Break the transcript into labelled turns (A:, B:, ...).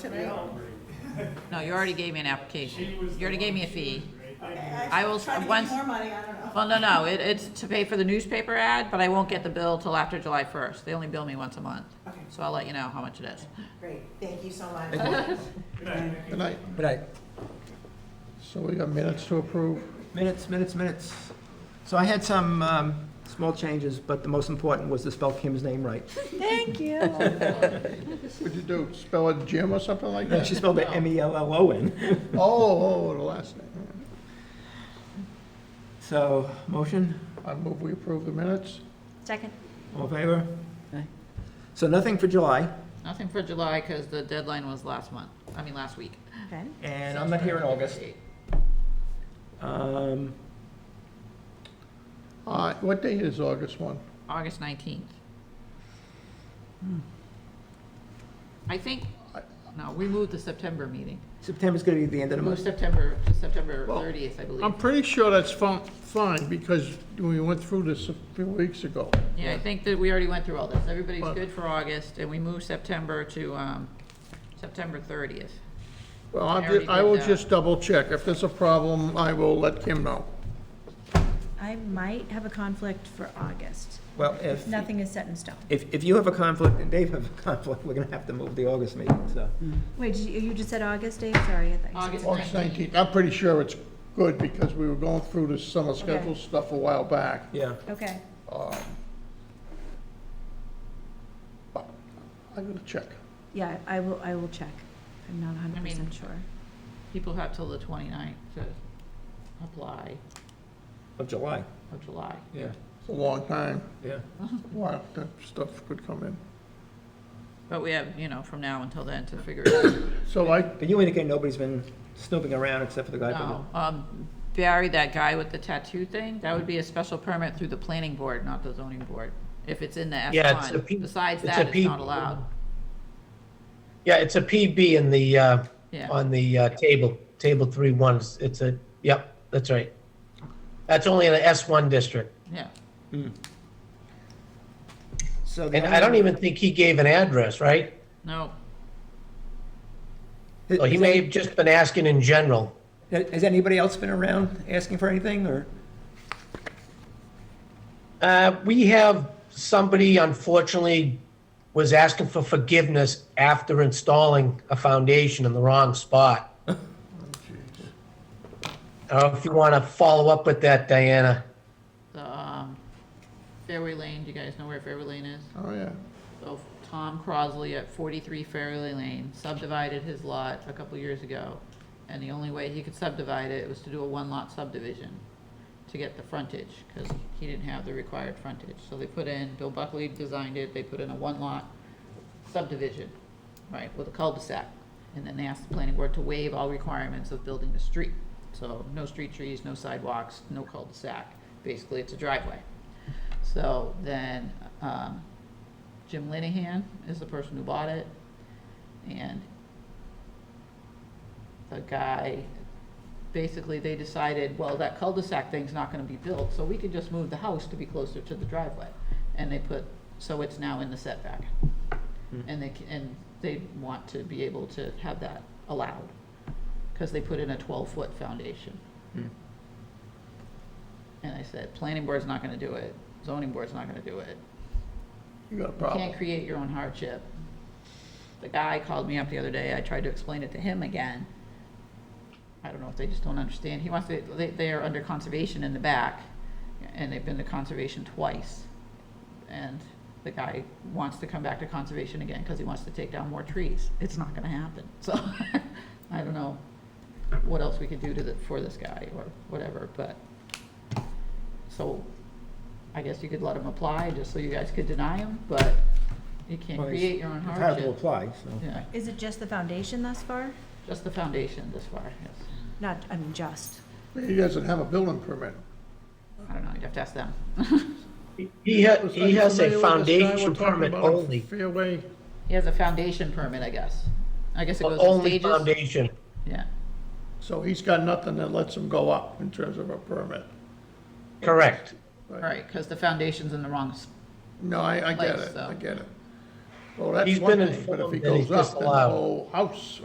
A: No, you already gave me an application. You already gave me a fee. I
B: I
A: will-
B: Trying to get
A: once-
B: more money, I don't know.
A: Well, no, no, it, it's to pay for the newspaper ad, but I won't get the bill till after July first. They only bill me once a month.
B: Okay.
A: So I'll let you know how much it is.
B: Great, thank you so much.
C: Good night.
D: But I,
C: So we got minutes to approve.
D: minutes, minutes, minutes. So I had some um, small changes, but the most important was to spell Kim's name right.
C: What'd you do, spell it Jim or something like that?
D: She spelled it E M-E-L-L-O-N.
C: Oh, oh, the last name.
D: So, motion,
C: I move we approve the minutes.
E: Second.
D: all in favor? So nothing for July,
A: Nothing for July, cause the deadline was last month, I mean, last week.
E: Okay.
D: and I'm not here in August. Um,
C: Uh, What date is August 1?
A: August nineteenth. Hmm. I think, no, we moved the September meeting.
D: September's gonna be the end of the
A: Moved
D: month.
A: September to September
C: Well,
A: thirtieth, I
C: I'm
A: believe.
C: pretty sure that's fin- fine, because we went through this a few weeks ago.
A: Yeah, I think that we already went through all this. Everybody's
C: Well-
A: good for August, and we moved September to, um, September thirtieth.
C: Well,
A: I
C: I'm
A: already
C: ju- I will
A: did that.
C: just double check. If there's a problem, I will let Kim know.
E: I might have a conflict for August.
D: Well, if,
E: Nothing is set in stone.
D: if, if you have a conflict and Dave have a conflict, we're gonna have to move the August meeting, so.
E: Wait, did you, you just said August, Dave? Sorry, I thought you
A: August
E: said.
C: August
A: nineteenth.
C: 19th, I'm pretty sure it's good, because we were going through this summer schedule stuff a while back. Um,
D: Yeah,
E: Okay,
C: But I'm gonna check.
E: yeah, I will, I will check. I'm not hundred percent sure.
A: People have till the 29th to apply
D: of July,
A: for July.
D: yeah,
C: It's a long time.
D: yeah.
C: Wow, that stuff could come in.
A: But we have, you know, from now until then to figure it out.
C: So I,
D: But you indicate nobody's been snooping around except for the guy from
A: No, um, Barry, that guy with the tattoo thing, that would be a special permit through the planning board, not the zoning board. If it's in the
F: Yeah, it's a P-
A: F1. Besides
F: it's a
A: that, it's
F: P-
A: not allowed.
F: Yeah, it's a PB in the, uh,
A: Yeah,
F: on the uh, table, table three ones. It's a, yep, that's right. That's only in the S1 district.
A: yeah.
D: the, so. the
F: And I don't
D: only-
F: even think he gave an address, right?
A: No,
F: Or Oh, he may have just been asking in general.
D: Has anybody else been around asking for anything, or?
F: Uh, We have somebody unfortunately was asking for forgiveness after installing a foundation in the wrong spot. I don't know if you want to follow up with that, Diana.
A: the, um, Fairway Lane, do you guys know where Fairway Lane is?
C: oh yeah,
A: So Tom Crosley at forty-three Fairleigh Lane subdivided his lot a couple years ago. And the only way he could subdivide it was to do a one-lot subdivision to get the frontage, because he didn't have the required frontage. So they put in, Bill Buckley designed it, they put in a one-lot subdivision, right, with a cul-de-sac. And then they asked the planning board to waive all requirements of building the street. So no street trees, no sidewalks, no cul-de-sac. Basically, it's a driveway. So then, um, Jim Linehan is the person who bought it, and the guy, basically, they decided, well, that cul-de-sac thing's not gonna be built, so we could just move the house to be closer to the driveway. And they put, so it's now in the setback. And they, ca- and they want to be able to have that allowed, because they put in a twelve-foot foundation. And I said, planning board's not gonna do it, zoning board's not gonna do it,
C: you got a
A: you can't
C: problem.
A: create your own hardship. The guy called me up the other day, I tried to explain it to him again. I don't know if they just don't understand, he wants to, they, they are under conservation in the back, and they've been to conservation twice. And the guy wants to come back to conservation again, cause he wants to take down more trees, it's not gonna happen, so, I don't know what else we could do to the, for this guy, or whatever, but. So, I guess you could let him apply, just so you guys could deny him, but you can't
D: Well, he's
A: create your own
D: entitled to
A: hardship.
D: apply, so.
A: Yeah,
E: Is it just the foundation thus far?
A: just the foundation this far, yes.
E: Not, I mean, just.
C: He doesn't have a building permit.
A: I don't know, you'd have to ask them.
F: He ha-
C: Was- are
F: he
C: you
F: has a
C: familiar with this guy we're
F: foundation
C: talking
F: permit
C: about on
F: only,
C: Fairway,
A: He has a foundation permit, I guess. I guess it goes in
F: only
A: stages.
F: foundation.
A: Yeah,
C: so he's got nothing that lets him go up in terms of a permit.
F: Correct.
A: right, because the foundation's in the wrong, s-
C: No, I, I get
A: Place,
C: it,
A: though.
C: I get it. Well, that's
F: He's
C: one
F: been
C: thing, but if he
F: informed that he's
C: goes up, then the
F: disallowed.
C: whole house